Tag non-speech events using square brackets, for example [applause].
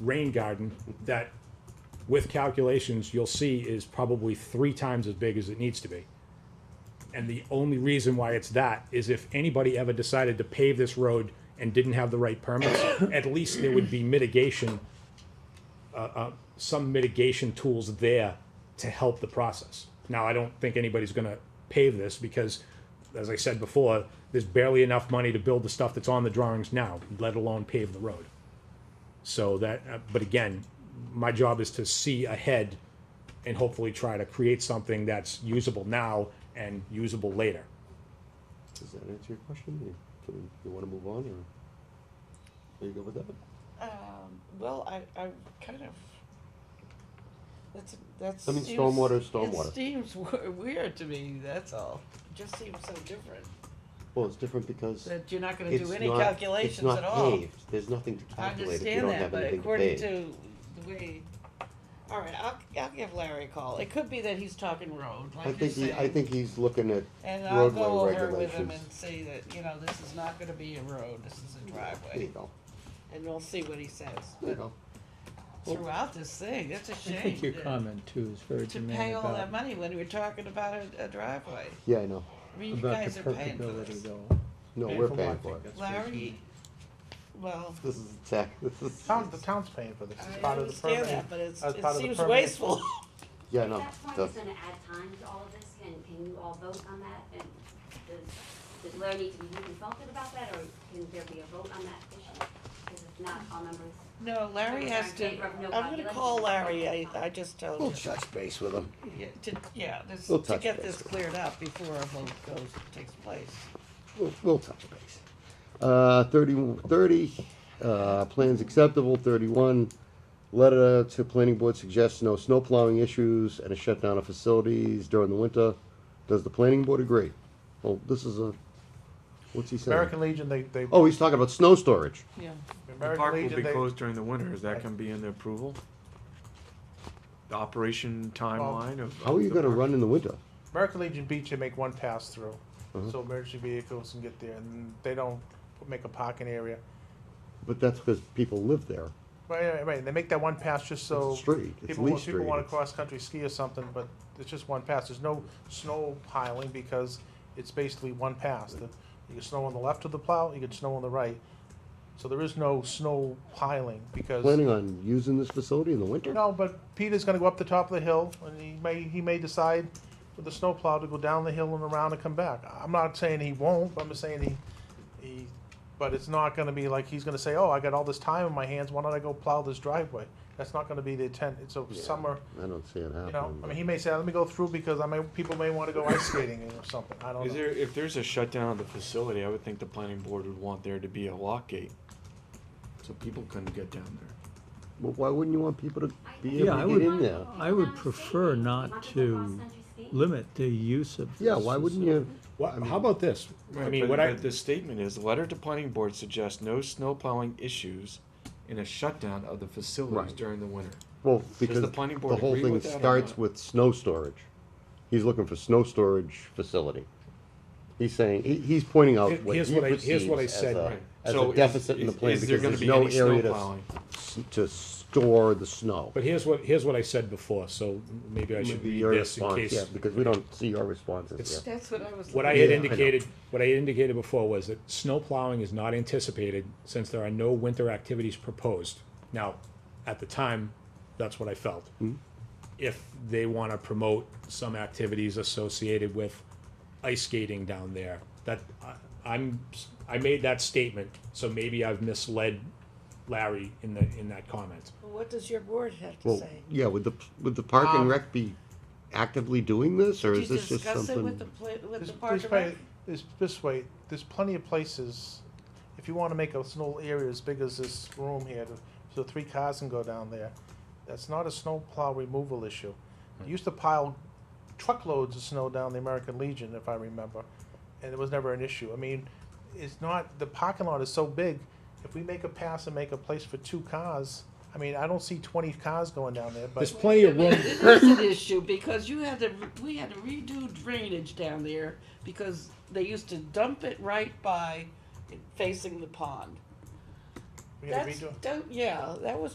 rain garden that, with calculations, you'll see is probably three times as big as it needs to be. And the only reason why it's that is if anybody ever decided to pave this road and didn't have the right permits, at least there would be mitigation, uh, uh, some mitigation tools there to help the process. Now, I don't think anybody's gonna pave this because, as I said before, there's barely enough money to build the stuff that's on the drawings now, let alone pave the road. So that, uh, but again, my job is to see ahead and hopefully try to create something that's usable now and usable later. Does that answer your question? You, can- you wanna move on, or are you good with that? Um, well, I, I kind of, that's, that's. I mean, stormwater is stormwater. It seems we- weird to me, that's all. It Just seems so different, Well, it's different because that you're not gonna it's do any not, it's calculations not at all. paved, there's nothing to I calculate if you understand don't that, have but anything to according pave. to the way, all right, I'll, I'll give Larry a call. It could be that he's talking road, I like you think he, I think he's looking at And I'll go roadway over with him regulations. and say that, you know, this is not gonna be a road, this is a There you driveway, go, and we'll see what he says. there you go. Throughout this thing, that's a I shame. think your that- comment too is very to germane pay all that about, money when we're talking about a, a driveway. Yeah, I know, I mean, you about guys the are paying for permeability this. though. no, Paying we're for paying what? for it, That's what Larry, well, this is tax, this is, Town, the town's paying for this, it's I part of the understand that, permit. but it's, As it part of the seems permitting. wasteful. [laughs] yeah, I know, That's why the, it's gonna add time to all of this, can, can you all vote on that? And does, does Larry need to be consulted about that, or can there be a vote on that issue? Because if not, all members, No, Larry has to, I'm gonna call Larry, I, I just told we'll him. touch base with him. Yeah, to, yeah, this, We'll to touch get base this with cleared up before a vote goes, takes place. we'll, we'll touch base. Uh, 30, 30, uh, plans acceptable, thirty-one, letter to planning board suggests no snow plowing issues and a shutdown of facilities during the winter. Does the planning board agree? Well, this is a, what's he saying? American Legion, they, they, Oh, he's talking about snow storage. Yeah. The American park will be Legion, they, closed during the winter, is that gonna be in the approval? The operation timeline of. How are you of the gonna park? run in the winter? American Legion Beach, you make one pass through, Uh-huh. Mhm. so emergency vehicles can get there, and they don't make a parking area. But that's because people live there. Right, right, right, they make that one pass just so. It's a street, it's people Lee want- Street. People wanna It's- cross-country ski or something, but it's just one pass, there's no snow piling, because it's basically one pass. The- You can snow on the left of the plow, you can snow on the right, so there is no snow piling, because. Planning on using this facility in the winter? No, but Peter's gonna go up the top of the hill, and he may, he may decide with the snowplow to go down the hill and around and come back. I'm not saying he won't, but I'm just saying he, he, but it's not gonna be like, he's gonna say, oh, I got all this time in my hands, why don't I go plow this driveway? That's not gonna be the intent, it's a summer, I don't see it you know, happening. I but- mean, he may say, let me go through because I may, people may wanna go ice skating or something, I don't Is know. there, if there's a shutdown of the facility, I would think the planning board would want there to be a lock gate, so people couldn't get down there. Well, why wouldn't you want people to be Yeah, I able to would- get in there? I would prefer not to limit the use of. Yeah, this why wouldn't facility. you? Well, how about this? I mean, But- what I, but The statement is, letter to planning board suggests no snow plowing issues in a shutdown of the facilities Right. during the winter. Well, because the the planning board whole agree thing with that or starts not? with snow storage. He's looking for snow storage facility. He's saying, he, he's pointing out Here- what he here's what I- here's perceives what I as said. a, Right. as So a is- deficit in the is- plan is there because gonna there's be no any snow area to, plowing? s- to store the snow. but here's what, here's what I said before, so maybe I should Maybe read your this in response, case. Yeah, because we don't see your responses It's- here. That's what I was. What I had Yeah, I know. indicated, what I had indicated before was that snow plowing is not anticipated since there are no winter activities proposed. Now, at the time, that's what I felt. Hmm. If they want to promote some activities associated with ice skating down there, that, I- I'm, I made that statement, so maybe I've misled Larry in the, in that comment. What does your board have to Well, say? yeah, would the, would the park Um, and rec be actively doing this, or is Did you this just discuss it with the, something? pla- with This- the park this and way- rec? This, this way, there's plenty of places, if you wanna make a snow area as big as this room here, to- so three cars can go down there, that's not a snow plow removal issue. They used to pile truckloads of snow down the American Legion, if I remember, and it was never an issue. I mean, it's not, the parking lot is so big, if we make a pass and make a place for two cars, I mean, I don't see twenty cars going down there, but. There's plenty of room, It is an issue because you had to, we had to redo drainage down there because they used to dump it right by facing the pond. we gotta That's, redo it. don't, yeah, that was